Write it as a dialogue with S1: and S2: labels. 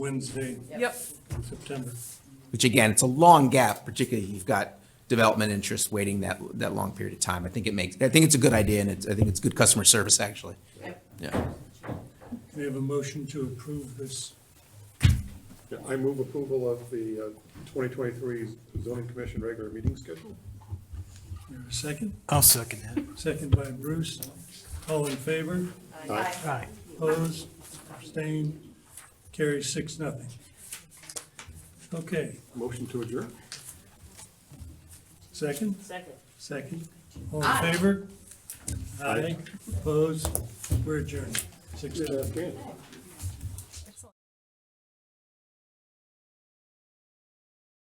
S1: Wednesday,
S2: Yep.
S1: September.
S3: which again, it's a long gap, particularly if you've got development interests waiting that, that long period of time. I think it makes, I think it's a good idea and it's, I think it's good customer service, actually. Yeah.
S1: We have a motion to approve this.
S4: Yeah, I move approval of the uh, 2023 zoning commission regular meeting schedule.
S1: Is there a Second,
S5: I'll second that.
S1: second by Bruce. All in favor?
S4: Aye.
S5: Aye.
S1: Opposed, abstained, carries six, nothing. Okay,
S4: Motion to adjourn?
S1: second,
S2: Second.
S1: second, all in favor? Aye, opposed, we're adjourned, six,
S4: Yeah,
S1: nothing.
S4: Dan.